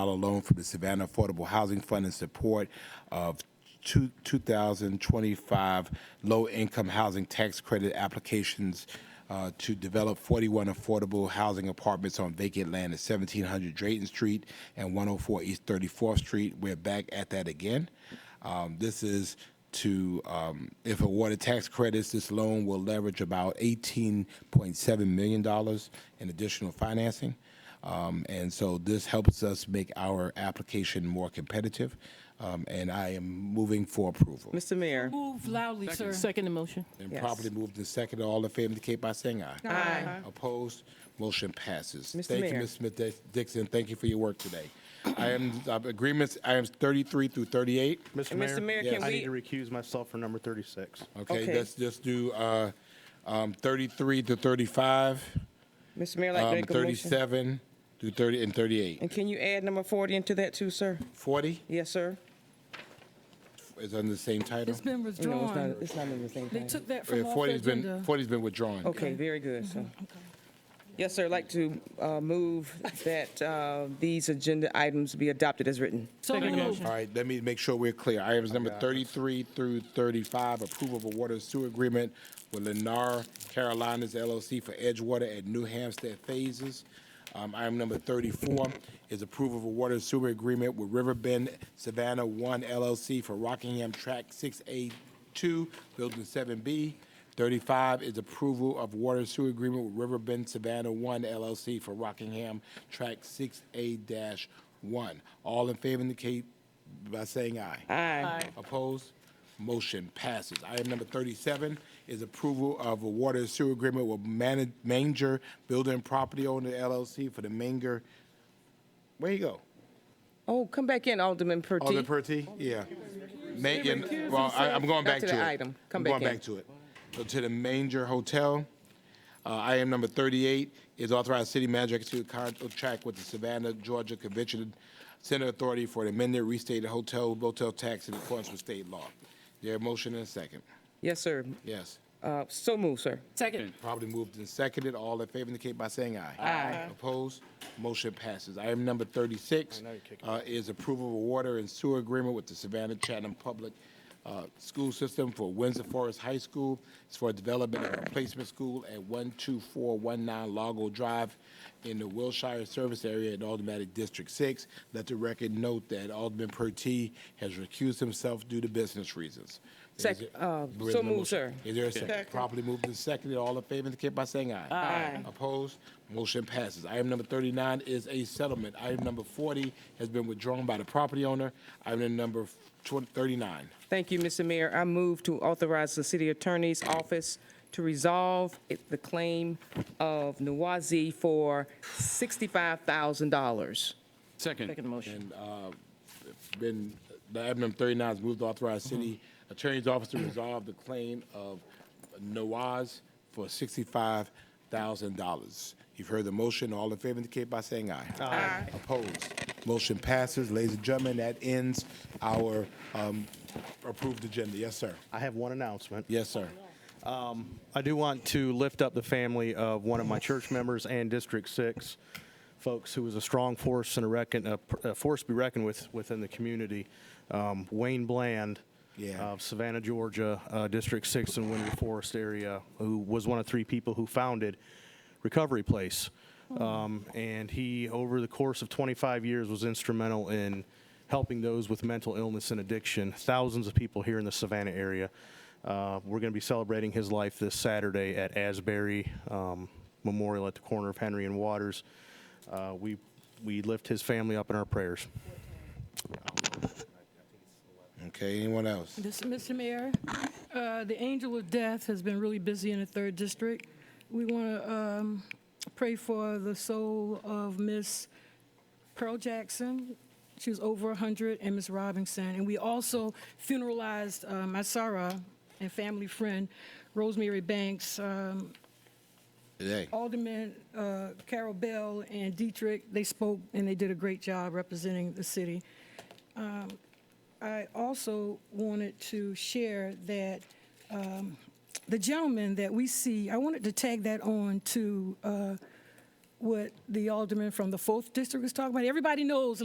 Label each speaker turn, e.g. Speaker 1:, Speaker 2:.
Speaker 1: loan from the Savannah Affordable Housing Fund in support of two- 2025 low-income housing tax credit applications uh, to develop 41 affordable housing apartments on vacant land at 1700 Drayton Street and 104 East 34th Street. We're back at that again. Um, This is to, um, if awarded tax credits, this loan will leverage about $18.7 million in additional financing. Um, and so this helps us make our application more competitive. Um, and I am moving for approval.
Speaker 2: Mr. Mayor.
Speaker 3: Move loudly, sir.
Speaker 4: Second motion.
Speaker 1: And
Speaker 2: Yes.
Speaker 1: properly moved and seconded. All in favor indicate by saying aye.
Speaker 2: Aye.
Speaker 1: Opposed? Motion passes.
Speaker 2: Mr.
Speaker 1: Thank you,
Speaker 2: Mayor.
Speaker 1: Ms. Smith Dix- Dixon. Thank you for your work today. Items, uh, agreements, items 33 through 38.
Speaker 5: Mr.
Speaker 2: And
Speaker 5: Mayor?
Speaker 2: Mr. Mayor, can
Speaker 5: I need to
Speaker 2: we,
Speaker 5: recuse myself for number 36.
Speaker 1: Okay,
Speaker 2: Okay.
Speaker 1: let's just do uh, um, 33 to 35,
Speaker 2: Mr. Mayor, I'd
Speaker 1: um,
Speaker 2: like to make a motion.
Speaker 1: 37 to 30, and 38.
Speaker 2: And can you add number 40 into that too, sir?
Speaker 1: 40
Speaker 2: Yes, sir?
Speaker 1: is under the same title.
Speaker 3: It's been
Speaker 2: No, it's not,
Speaker 3: withdrawn.
Speaker 2: it's not in the same
Speaker 3: They
Speaker 2: thing.
Speaker 3: took that
Speaker 1: Yeah,
Speaker 3: from off the
Speaker 1: 40's been,
Speaker 3: agenda.
Speaker 1: 40's been withdrawn.
Speaker 2: Okay, very good, sir. Yes, sir, I'd like to uh, move that uh, these agenda items be adopted as written.
Speaker 3: Second
Speaker 1: All
Speaker 3: motion.
Speaker 1: right, let me make sure we're clear. Items number 33 through 35, approval of a water and sewer agreement with Lennar Carolinas LLC for Edgewater at New Hampstead Phases. Um, Item number 34 is approval of a water and sewer agreement with Riverbend Savannah One LLC for Rockingham Track 6A 2, Building 7B. 35 is approval of water and sewer agreement with Riverbend Savannah 1 LLC for Rockingham Track 6A-1. All in favor indicate by saying aye.
Speaker 2: Aye.
Speaker 1: Opposed? Motion passes. Item number 37 is approval of a water and sewer agreement with Man- Manger Building Property Owner LLC for the Manger, where you go?
Speaker 2: Oh, come back in, Alderman
Speaker 1: Alderman
Speaker 2: Purdy.
Speaker 1: Purty? Yeah. Ma- yeah, well, I, am going back
Speaker 2: Back to
Speaker 1: to
Speaker 2: the
Speaker 1: it.
Speaker 2: item. Come
Speaker 1: I'm
Speaker 2: back
Speaker 1: Going
Speaker 2: in.
Speaker 1: back to it. So to the Manger Hotel. Uh, item number thirty-eight is authorized city manager to execute contract with the Savannah, Georgia Convention Center Authority for the amended restated hotel motel tax in accordance with state law. There a motion and a second?
Speaker 2: Yes, sir.
Speaker 1: Yes.
Speaker 2: Uh, So move, sir.
Speaker 3: Second.
Speaker 1: Probably moved and seconded. All in favor indicate by saying aye. Aye. Opposed? Motion passes. Item number 36 uh, is approval of a water and sewer agreement with the Savannah Chatham Public uh, School System for Windsor Forest High School. It's for development of a replacement school at 12419 Lago Drive in the Wilshire Service Area in Automatic District 6. Let the record note that Alderman Pertee has recused himself due to business reasons.
Speaker 2: Sec-
Speaker 1: Is it-
Speaker 2: uh,
Speaker 1: there is
Speaker 2: so
Speaker 1: no
Speaker 2: moved,
Speaker 1: motion.
Speaker 2: sir.
Speaker 1: Is there a second? Properly moved and seconded. All in favor indicate by saying aye. Aye. Opposed? Motion passes. Item number 39 is a settlement. Item number 40 has been withdrawn by the property owner. Item number 20 39.
Speaker 2: Thank you, Mr. Mayor. I move to authorize the city attorney's office to resolve it- the claim of Nawazi for $65,000.
Speaker 4: Second motion.
Speaker 1: Been, the item number 39 is moved to authorize city attorney's office to resolve the claim of Nawaz for $65,000. You've heard the motion. All in favor indicate by saying aye. Aye. Opposed? Motion passes. Ladies and gentlemen, that ends our um, approved agenda. Yes, sir.
Speaker 5: I have one announcement.
Speaker 1: Yes, sir.
Speaker 5: I do want to lift up the family of one of my church members and District 6 folks who was a strong force and a, reckon, a, pr- a force to be reckoned with within the community. Um, Wayne Bland uh,
Speaker 1: Yeah.
Speaker 5: of Savannah, Georgia, uh, District 6 and Winter Forest area, who was one of three people who founded Recovery Place. Um, and he, over the course of 25 years, was instrumental in helping those with mental illness and addiction, thousands of people here in the Savannah area. Uh, we're going to be celebrating his life this Saturday at Asbury um, Memorial at the corner of Henry and Waters. Uh, we, we lift his family up in our prayers.
Speaker 1: Okay, anyone else?
Speaker 3: This, Mr. Mayor, uh, the angel of death has been really busy in the third district. We want to pray for the soul of Miss Pearl Jackson. She was over 100, and Miss Robinson. And we also funeralized uh, my Sarah and family friend, Rosemary Banks, um,
Speaker 1: Today.
Speaker 3: Alderman uh, Carol Bell and Dietrich, they spoke and they did a great job representing the city. Um, I also wanted to share that um, the gentleman that we see, I wanted to tag that on to uh, what the alderman from the fourth district was talking about. Everybody knows